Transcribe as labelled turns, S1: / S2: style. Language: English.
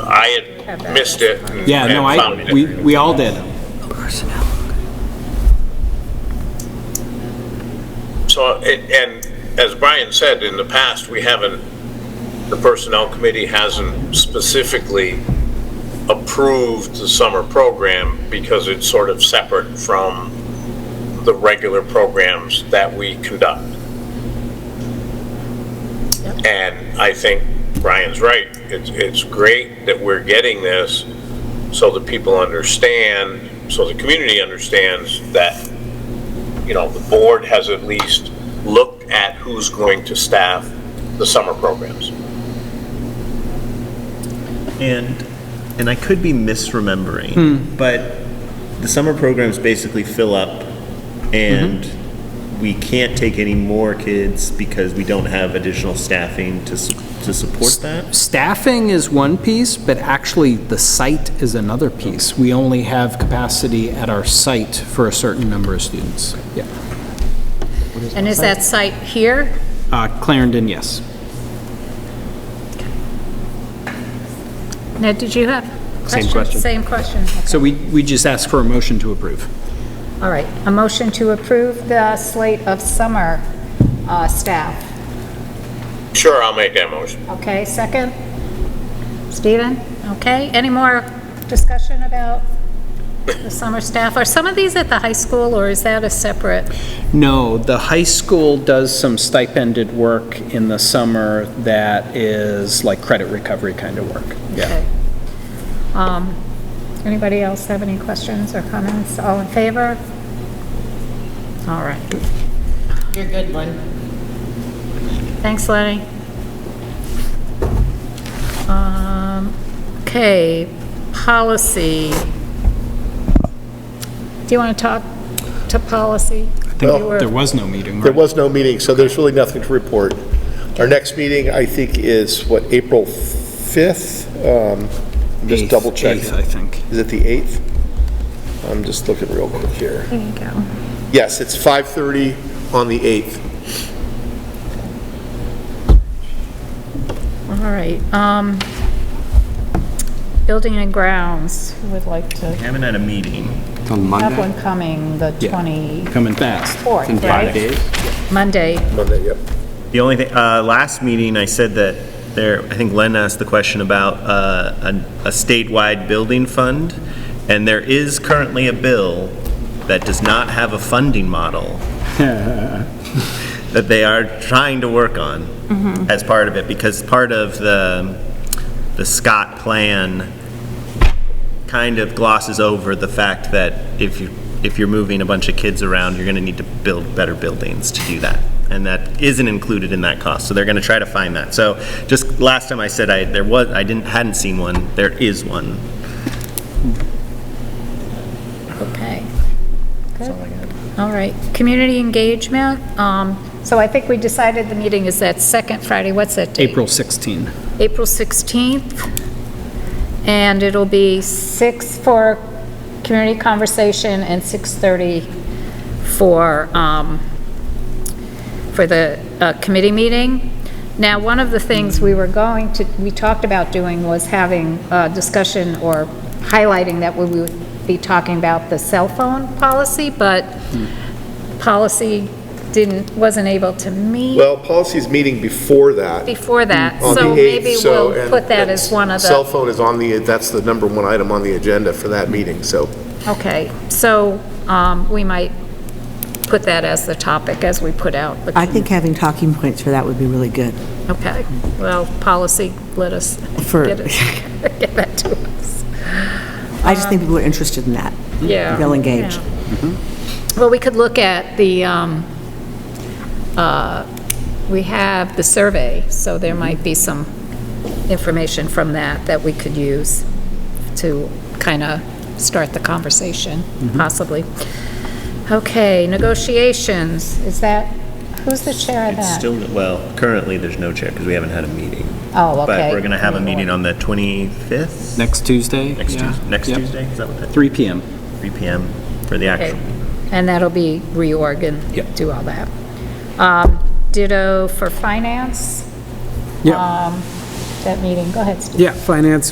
S1: I had missed it. and-
S2: Yeah,
S1: and
S2: no, I,
S1: found it.
S2: we, we all did.
S1: So, it- and as Brian said, in the past, we haven't, the Personnel Committee hasn't specifically approved the summer program because it's sort of separate from the regular programs that we conduct. And I think Brian's right. It's, it's great that we're getting this so that people understand, so the community understands that you know, the board has at least looked at who's going to staff the summer programs.
S3: And, and I could be misremembering, but the summer programs basically fill up, and we can't take any more kids because we don't have additional staffing to su- to support that.
S2: Staffing is one piece, but actually the site is another piece. We only have capacity at our site for a certain number of students. Yeah.
S4: And is that site here?
S2: Uh, Clarendon, yes.
S4: Ned, did you have? questions?
S2: question.
S4: Same question.
S2: So we, we just ask for a motion to approve.
S4: All right, a motion to approve the slate of summer uh, staff.
S1: Sure, I'll make that motion.
S4: Okay, second? Stephen? Okay, any more discussion about the summer staff? Are some of these at the high school, or is that a separate?
S2: No, the high school does some stipended work in the summer that is like credit recovery kind of work.
S4: Okay. Um, Anybody else have any questions or comments? All in favor? All right.
S5: You're a good one.
S4: Thanks, Lenny. Um, Okay, policy. Do you want to talk to policy? You were-
S2: There was no meeting,
S6: There
S2: right?
S6: was no meeting, so there's really nothing to report. Our next meeting, I think, is, what, April 5th? Um, I'm Just
S2: Eighth-
S6: double checking.
S2: Eighth, I think.
S6: Is it the 8th? I'm just looking real quick here.
S4: There you go.
S6: Yes, it's 5:30 on the 8th.
S4: All right. um, Building and grounds, who would like to
S3: We haven't had a meeting.
S7: On
S4: have
S7: Monday?
S4: one coming, the
S2: Yeah.
S4: 24th,
S2: Coming fast.
S7: In five
S4: right?
S7: days?
S4: Monday.
S6: Monday, yep.
S3: The only thing, uh, last meeting, I said that there, I think Len asked the question about, uh, an- a statewide building fund, and there is currently a bill that does not have a funding model that they are trying to work on
S4: Mm-hmm.
S3: as part of it, because part of the, the Scott plan kind of glosses over the fact that if you, if you're moving a bunch of kids around, you're gonna need to build better buildings to do that. And that isn't included in that cost, so they're gonna try to find that. So just last time I said I, there was, I didn't, hadn't seen one, there is one.
S4: Okay. Good. All right, community engagement, um, so I think we decided the meeting is that second Friday, what's that date?
S2: April 16.
S4: April 16th, and it'll be 6 for community conversation and 6:30 for, um, for the uh, committee meeting. Now, one of the things we were going to, we talked about doing was having a discussion or highlighting that we would be talking about the cell phone policy, but policy didn't, wasn't able to meet
S6: Well, policy's meeting before that.
S4: before that,
S6: on the
S4: so
S6: 8th,
S4: maybe
S6: so-
S4: we'll
S6: and-
S4: put that
S6: and
S4: as one of
S6: Cell
S4: the,
S6: phone is on the, that's the number one item on the agenda for that meeting, so.
S4: okay, so um, we might put that as the topic as we put out. the-
S8: I think having talking points for that would be really good.
S4: Okay, well, policy, let us
S8: For-
S4: get it- get that to us,
S8: I just think people are interested in that.
S4: yeah.
S8: They'll engage.
S4: Oh. yeah. Well, we could look at the, um, uh, we have the survey, so there might be some information from that that we could use to kind of start the conversation,
S3: Mm-hmm.
S4: possibly. Okay, negotiations, is that, who's the chair of
S3: It's
S4: that?
S3: still, well, currently, there's no chair, because we haven't had a meeting.
S4: Oh, okay.
S3: But we're gonna have a meeting on the 25th?
S2: Next Tuesday?
S3: Next
S2: Yeah.
S3: Tuesday, next
S2: Yep.
S3: Tuesday, is that what that,
S2: 3 PM.
S3: 3 PM for the
S4: Okay,
S3: actual?
S4: And that'll be reorg and
S2: Yep.
S4: do all that. Um, Ditto for finance, Um,
S7: Yeah,
S4: that meeting, go ahead, Steve.
S7: yeah, finance